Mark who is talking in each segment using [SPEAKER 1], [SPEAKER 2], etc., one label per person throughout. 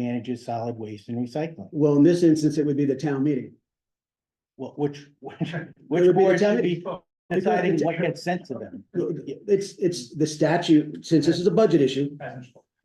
[SPEAKER 1] manages solid waste and recycling.
[SPEAKER 2] Well, in this instance, it would be the town meeting.
[SPEAKER 1] Well, which, which,
[SPEAKER 2] be
[SPEAKER 1] which board
[SPEAKER 2] the
[SPEAKER 1] should be deciding what gets sent to them?
[SPEAKER 2] It's, it's the statute, since this is a budget issue,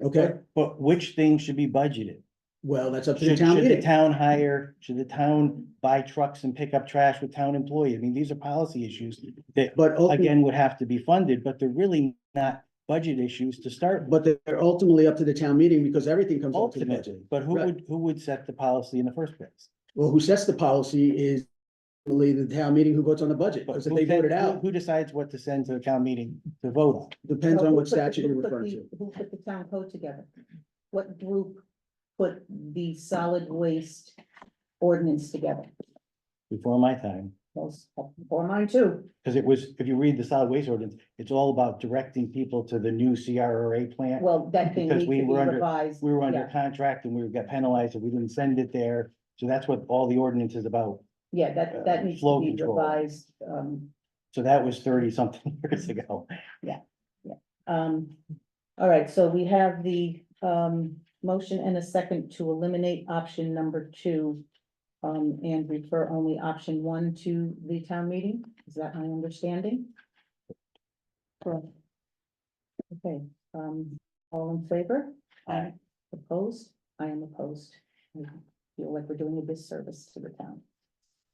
[SPEAKER 2] okay?
[SPEAKER 1] But which things should be budgeted?
[SPEAKER 2] Well, that's up to the
[SPEAKER 1] Should,
[SPEAKER 2] town
[SPEAKER 1] should the
[SPEAKER 2] meeting.
[SPEAKER 1] town hire, should the town buy trucks and pick up trash with town employees? I mean, these are policy issues that
[SPEAKER 2] But ultimately,
[SPEAKER 1] again would have to be funded, but they're really not budget issues to start with
[SPEAKER 2] but they're ultimately up to the town meeting because everything comes up to the budget.
[SPEAKER 1] ultimately. But who
[SPEAKER 2] Right.
[SPEAKER 1] would, who would set the policy in the first place?
[SPEAKER 2] Well, who sets the policy is really the town meeting who votes on the budget,
[SPEAKER 1] But
[SPEAKER 2] because if
[SPEAKER 1] who
[SPEAKER 2] they vote it
[SPEAKER 1] then- who-
[SPEAKER 2] out,
[SPEAKER 1] Who decides what to send to the town meeting to vote on?
[SPEAKER 2] depends on
[SPEAKER 3] Who
[SPEAKER 2] what
[SPEAKER 3] put the-
[SPEAKER 2] statute you're
[SPEAKER 3] who put
[SPEAKER 2] referring
[SPEAKER 3] the-
[SPEAKER 2] to.
[SPEAKER 3] Who put the town code together? What group put the solid waste ordinance together?
[SPEAKER 1] Before my time,
[SPEAKER 3] Those, or mine too.
[SPEAKER 1] because it was, if you read the solid waste ordinance, it's all about directing people to the new CRRA plant.
[SPEAKER 3] Well, that thing
[SPEAKER 1] Because
[SPEAKER 3] needs to
[SPEAKER 1] we
[SPEAKER 3] be
[SPEAKER 1] were under-
[SPEAKER 3] revised.
[SPEAKER 1] We were under
[SPEAKER 3] Yeah,
[SPEAKER 1] contract and we got penalized if we didn't send it there. So that's what all the ordinance is about.
[SPEAKER 3] Yeah, that, that
[SPEAKER 1] uh,
[SPEAKER 3] needs
[SPEAKER 1] flow
[SPEAKER 3] to be
[SPEAKER 1] control.
[SPEAKER 3] revised. Um,
[SPEAKER 1] So that was thirty something years ago.
[SPEAKER 3] um, all right, so we have the, um, motion and a second to eliminate option number two. Um, and refer only option one to the town meeting. Is that my understanding? Correct. Okay, um, all in favor?
[SPEAKER 1] Aye.
[SPEAKER 3] Opposed? I am opposed. I Feel like we're doing a disservice to the town.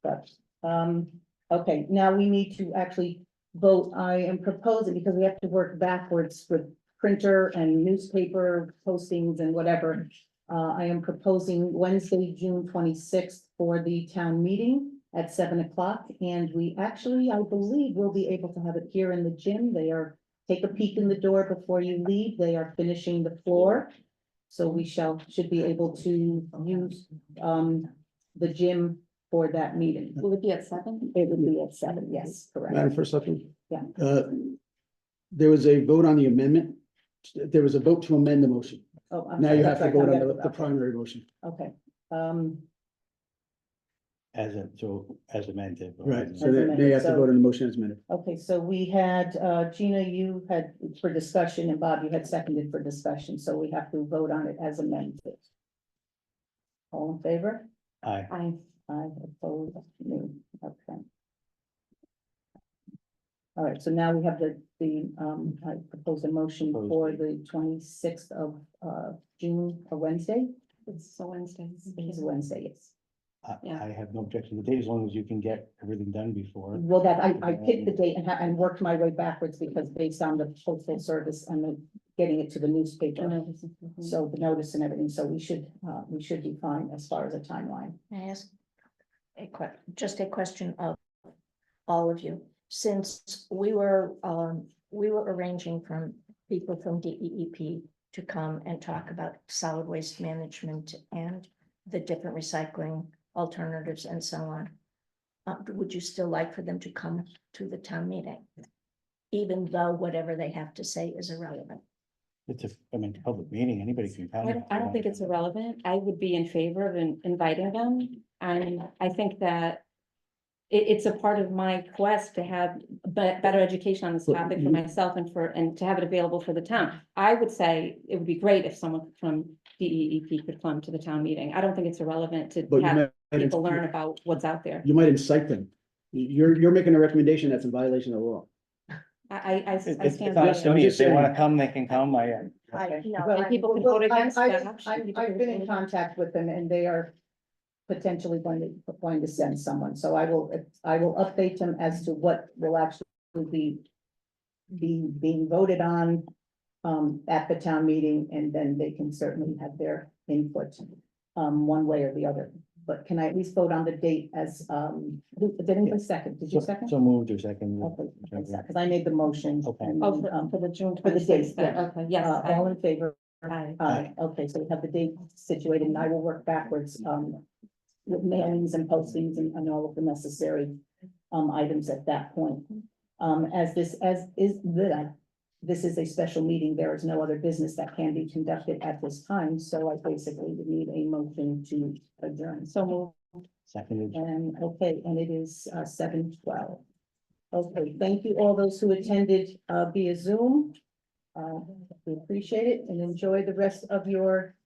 [SPEAKER 3] But, um, okay, now we need to actually vote. I am proposing, because we have to work backwards with printer and newspaper postings and whatever. Uh, I am proposing Wednesday, June twenty-sixth for the town meeting at seven o'clock. And we actually, I believe, will be able to have it here in the gym. They are, take a peek in the door before you leave. They are finishing the floor. So we shall, should be able to use, um, the gym for that meeting. Will it be at seven? It would be at seven, yes, correct.
[SPEAKER 2] Madam First Selectman?
[SPEAKER 3] Yeah.
[SPEAKER 2] Uh, There was a vote on the amendment. There was a vote to amend the motion.
[SPEAKER 3] Oh, I'm
[SPEAKER 2] Now you
[SPEAKER 3] sorry,
[SPEAKER 2] have to
[SPEAKER 3] sorry,
[SPEAKER 2] vote
[SPEAKER 3] come
[SPEAKER 2] on
[SPEAKER 3] back
[SPEAKER 2] the,
[SPEAKER 3] to
[SPEAKER 2] the
[SPEAKER 3] that.
[SPEAKER 2] primary motion.
[SPEAKER 3] Okay, um,
[SPEAKER 1] As a, so as amended. but-
[SPEAKER 2] Right, so that- now you have to vote on the motion as amended.
[SPEAKER 3] okay, so we had, uh, Gina, you had for discussion and Bob, you had seconded for discussion, so we have to vote on it as amended. All in favor?
[SPEAKER 1] Aye.
[SPEAKER 3] I, I oppose, no, okay. All right, so now we have the, the, um, I propose a motion
[SPEAKER 1] Proposed
[SPEAKER 3] for
[SPEAKER 1] date.
[SPEAKER 3] the twenty-sixth of, uh, June, or Wednesday?
[SPEAKER 4] It's a Wednesday.
[SPEAKER 3] It's Wednesday, yes.
[SPEAKER 1] I,
[SPEAKER 4] Yeah.
[SPEAKER 1] I have no objection to the date as long as you can get everything done before.
[SPEAKER 3] Well, that, I, I picked the date and, ha- and worked my way backwards because based on the postal service and the, getting it to the newspaper.
[SPEAKER 4] So
[SPEAKER 3] So the notice and everything, so we should, uh, we should be fine as far as a timeline.
[SPEAKER 4] I ask a que- just a question of all of you, since we were, um, we were arranging from people from D E E P to come and talk about solid waste management and the different recycling alternatives and so on. Uh, would you still like for them to come to the town meeting? Even though whatever they have to say is irrelevant?
[SPEAKER 1] It's a, I mean, public meeting, anybody can.
[SPEAKER 5] I don't, I don't think it's irrelevant. I would be in favor of in- inviting them. And I think that it, it's a part of my quest to have be- better education on this
[SPEAKER 2] But
[SPEAKER 5] topic
[SPEAKER 2] you-
[SPEAKER 5] for myself and for, and to have it available for the town. I would say it would be great if someone from D E E P could come to the town meeting. I don't think it's irrelevant to
[SPEAKER 2] But you
[SPEAKER 5] have
[SPEAKER 2] might-
[SPEAKER 5] people learn about what's out there.
[SPEAKER 2] You might incite them. You're, you're making a recommendation that's in violation of the law.
[SPEAKER 5] I, I- I,
[SPEAKER 1] It's,
[SPEAKER 5] I
[SPEAKER 1] it's
[SPEAKER 5] stand.
[SPEAKER 1] not
[SPEAKER 5] by
[SPEAKER 1] a
[SPEAKER 5] it.
[SPEAKER 1] study. If they
[SPEAKER 2] saying.
[SPEAKER 1] wanna come, they can come. I, uh,
[SPEAKER 4] I, no,
[SPEAKER 3] Well,
[SPEAKER 4] I-
[SPEAKER 5] And people can
[SPEAKER 3] well,
[SPEAKER 5] vote against
[SPEAKER 3] I-
[SPEAKER 5] that
[SPEAKER 3] I-
[SPEAKER 5] option.
[SPEAKER 3] I- I've been in contact with them and they are potentially going to, going to send someone, so I will, I will update them as to what will actually be. Be being voted on, um, at the town meeting, and then they can certainly have their input. Um, one way or the other, but can I at least vote on the date as, um, who- did anybody second, did you
[SPEAKER 1] so-
[SPEAKER 3] second?
[SPEAKER 1] So moved or second.
[SPEAKER 3] Okay, Because I made the motion.
[SPEAKER 1] Okay.
[SPEAKER 3] and,
[SPEAKER 5] Oh, for,
[SPEAKER 3] um,
[SPEAKER 5] for the June
[SPEAKER 3] for the dates,
[SPEAKER 5] twenty-sixth,
[SPEAKER 3] yeah.
[SPEAKER 5] okay, yes.
[SPEAKER 3] uh,
[SPEAKER 5] I-
[SPEAKER 3] All in favor?
[SPEAKER 5] I-
[SPEAKER 3] Aye, okay, so we have the date situated and I will work backwards, um, with mailings and postings and, and all of the necessary, um, items at that point. Um, as this, as is the, this is a special meeting, there is no other business that can be conducted at this time, so I basically would need a motion to adjourn.
[SPEAKER 5] So move.
[SPEAKER 1] Seconded.
[SPEAKER 3] And, okay, and it is, uh, seven twelve. Okay, thank you all those who attended, uh, via Zoom. Uh, we appreciate it and enjoy the rest of your